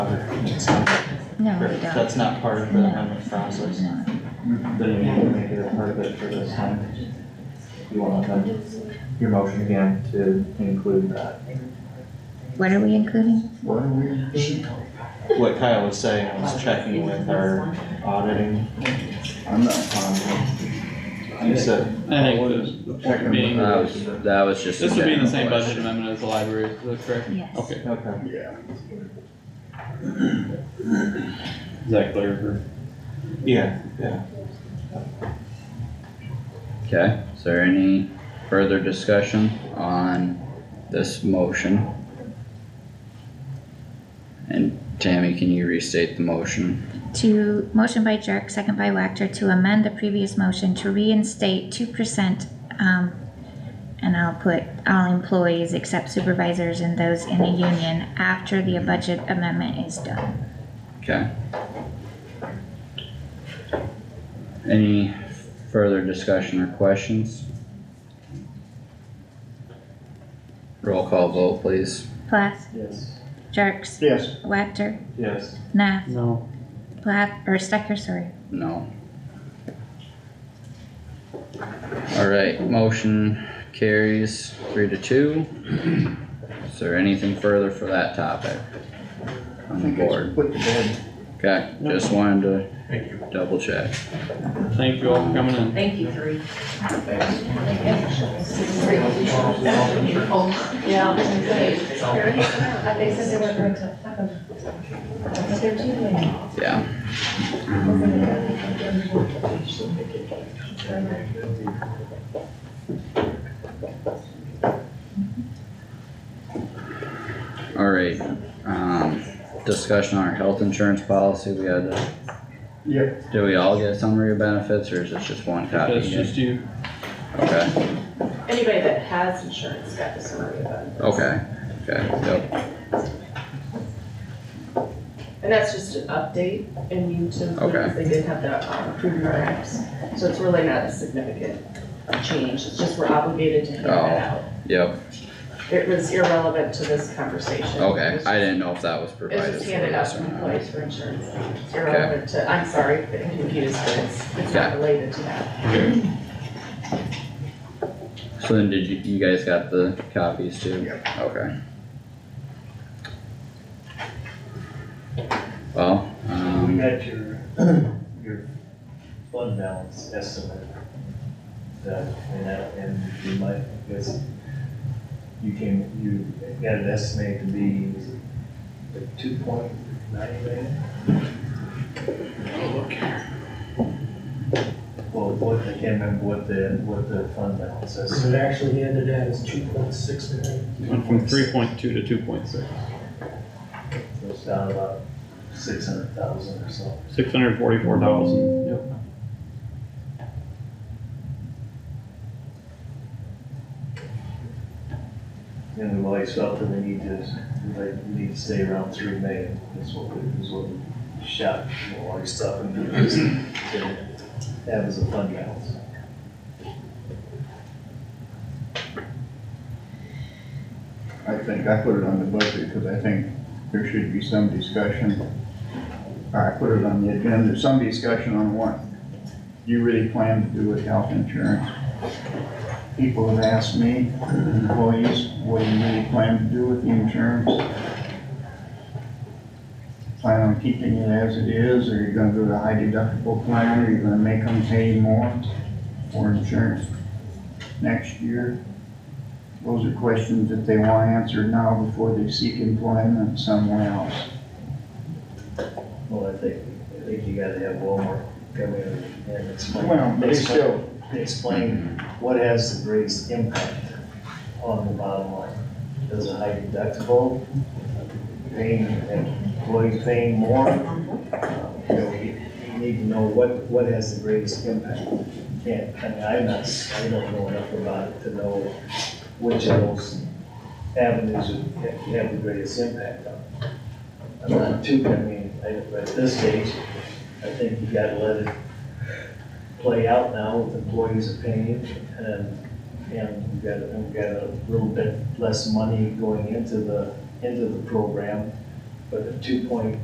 No, we Correct, don't. that's not part of the amendment process. No. Then you need to make it a part of it for this time. You want to amend your motion again to include that. What are we including? What Kyle was saying, I was checking with our auditing. I'm not fine You said, I think the, the point being, That was, that was just. this would be in the same budget amendment as the library, is that correct? Yes. Okay, okay, with it. Yeah. is that clear for? yeah, yeah. Okay, is there any further discussion on this motion? And Tammy, can you restate the motion? To, motion by Jerk, second by Wactor, to amend the previous motion to reinstate two percent, um, and I'll put all employees except supervisors and those in the union after the budget amendment is done. Okay. Any further discussion or questions? Roll call vote, please. Plath, Yes. Jerks, Yes. Wactor, Yes, Nah, No. Plath, or Stecker, sorry. No. Alright, motion carries three to two. Is there anything further for that topic? On the board, Put the bed. okay, just wanted to double check. Thank you all for coming in. Thank you, three. Yeah. They said they weren't going to have them. But they're doing Yeah, alright, um, discussion on our health insurance policy, we had, to- Yep. did we all get a summary of benefits, or is it just one copy? That's just you. Okay, it. Anybody that has insurance got the summary of it. okay, okay, yep. And that's just an update and you to, Okay. because they did have the um, approved products. So it's really not a significant change. It's just we're obligated to hand Oh. that out. Yep, It was irrelevant to this conversation. It okay, was I didn't know if that was provided. It's just for handed out us to or not. employees for insurance. It's irrelevant to, I'm sorry, I'm confused, but it's, it's not Okay. related to that. So then did you, you guys got the copies too? Yep. Okay. Well, We um, got your, your fund balance estimate done, and that, and you might, because you came, you got an estimate to be, was it two point nine million? Well, what, I can't remember what the, what the fund balance is. So it actually ended at is two point six million. Went from three point two to two point six, It was down about six hundred thousand or so. six hundred forty-four thousand. Yep. And we've always felt that we need to, like, we need to stay around three million, that's what we, is what we shot, you know, all your stuff and do this. That was a fund balance. I think I put it on the budget because I think there should be some discussion. I put it on the agenda, some discussion on what you really plan to do with health insurance. People have asked me, employees, what do you really plan to do with the insurance? Plan on keeping it as it is, or you're gonna go to high deductible plan, or you're gonna make them pay more for insurance next year? Those are questions that they want answered now before they seek employment somewhere else. Well, I think, I think you gotta have Walmart come in and explain. Well, but it's explain- still, Explain what has the greatest impact on the bottom line. Does a high deductible, paying, employees paying more? Uh, You know, you you need to know what, what has the greatest impact. Can't, I mean, I'm not, I don't know enough about it to know which of those avenues would have- have the greatest impact on. I'm not too, I mean, I- at this stage, I think you gotta let it play out now with employees' opinion, and, and we've got, we've got a little bit less money going into the, into the program, but a two point